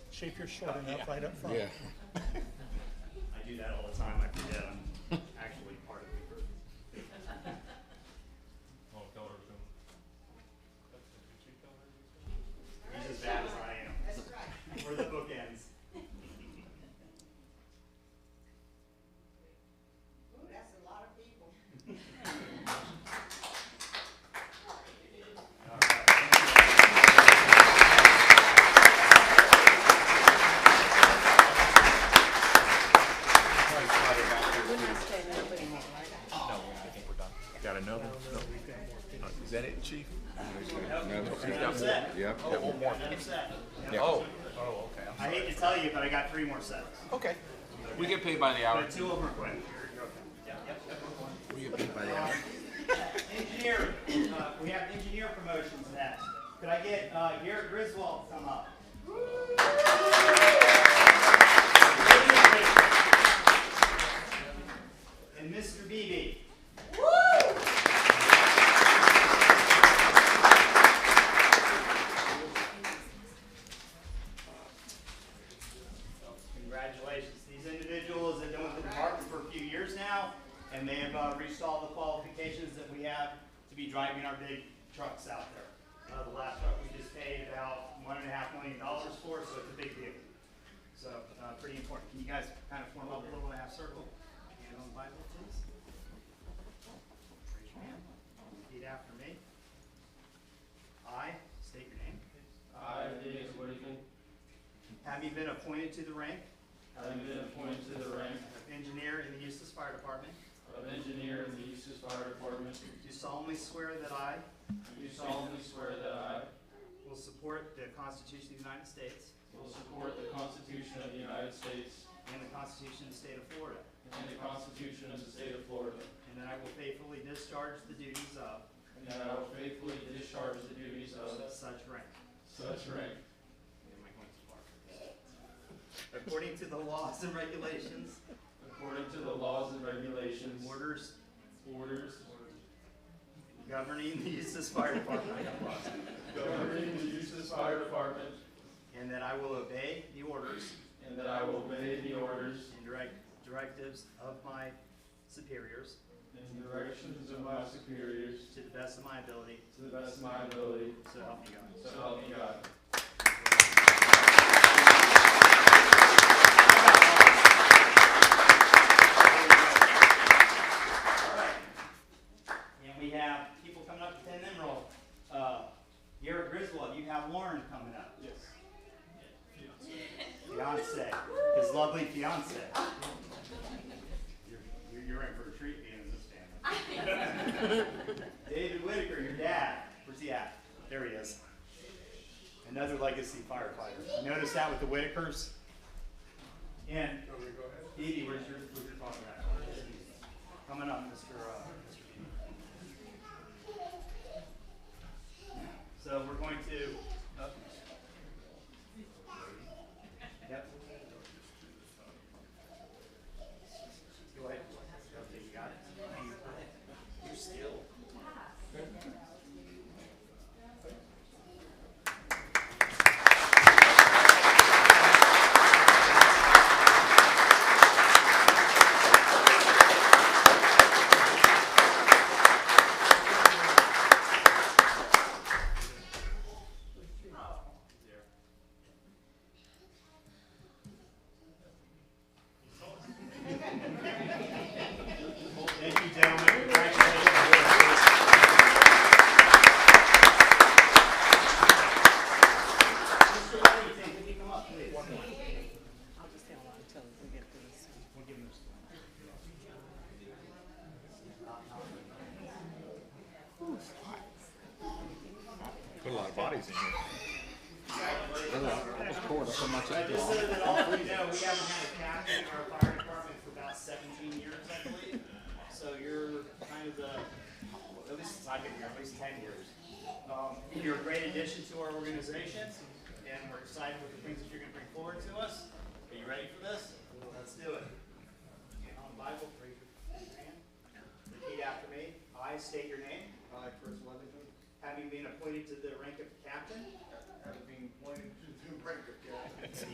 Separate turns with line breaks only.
See if you're short enough right up front.
Yeah.
I do that all the time. I forget I'm actually part of the group.
Oh, tell her soon.
He's as bad as I am. That's right. We're the bookends.
Ooh, that's a lot of people.
All right, thank you.
We're not staying up anymore, right?
No, I think we're done. Got another? No. Is that it, chief?
I'm set.
Yep.
One more.
I'm set.
Oh, oh, okay.
I hate to tell you, but I got three more sets.
Okay.
We get paid by the hour.
But two of them are quick. You're okay. Yeah, yep, yep.
We get paid by the hour.
Engineering, uh, we have engineer promotions next. Could I get, uh, Garrett Griswold to come up? And Mr. Beebe. Congratulations. These individuals have been with the department for a few years now, and they have uh, reached all the qualifications that we have to be driving our big trucks out there. Uh, The last truck we just paid about one and a half million dollars for, so it's a big deal. So, uh, pretty important. Can you guys kind of form up a little and a half circle? Hand on the Bible, please. Raise your hand. Repeat after me. I state your name.
I, David Whittaker,
Having been appointed to the rank
having been appointed to the rank
of engineer in the Eustis Fire Department,
of engineer in the Eustis Fire Department,
do solemnly swear that I
do solemnly swear that I
will support the Constitution of the United States
will support the Constitution of the United States
and the Constitution of the State of Florida,
and the Constitution of the State of Florida,
and that I will faithfully discharge the duties of
and that I will faithfully discharge the duties of
such rank
such rank
according to the laws and regulations,
according to the laws and regulations,
orders
orders,
governing the Eustis Fire Department,
governing the Eustis Fire Department,
and that I will obey the orders
and that I will obey the orders
and direct directives of my superiors
and directions of my superiors
to the best of my ability,
to the best of my ability,
so help me God.
so help me God.
Alright. And we have people coming up to Penn Emerald. Uh, Garrett Griswold, you have Lauren coming up.
Yes.
Fiance, his lovely fiance. You're, you're- you're in for a treat being in this family. David Whitaker, your dad. Where's he at? There he is. Another legacy firefighter. You Notice that with the Whitakers? And Edie, where's your, where's your phone at? Coming up, Mr. Uh, Mr. Edie. So we're going to, oh, Yep. Go ahead. Okay, you got it. Your skill. Thank you, gentlemen. Congratulations. Mr. Livingston, can you come up, please?
I'll just stay online until we get through this.
We'll give him this one.
Put a lot of bodies in here. Almost poured so much
But just so that all of you know, we haven't had a captain in our fire department for about seventeen years, I believe. So you're kind of the, at least since I've been here, at least ten years. Um, You're a great addition to our organization, and we're excited with the things that you're gonna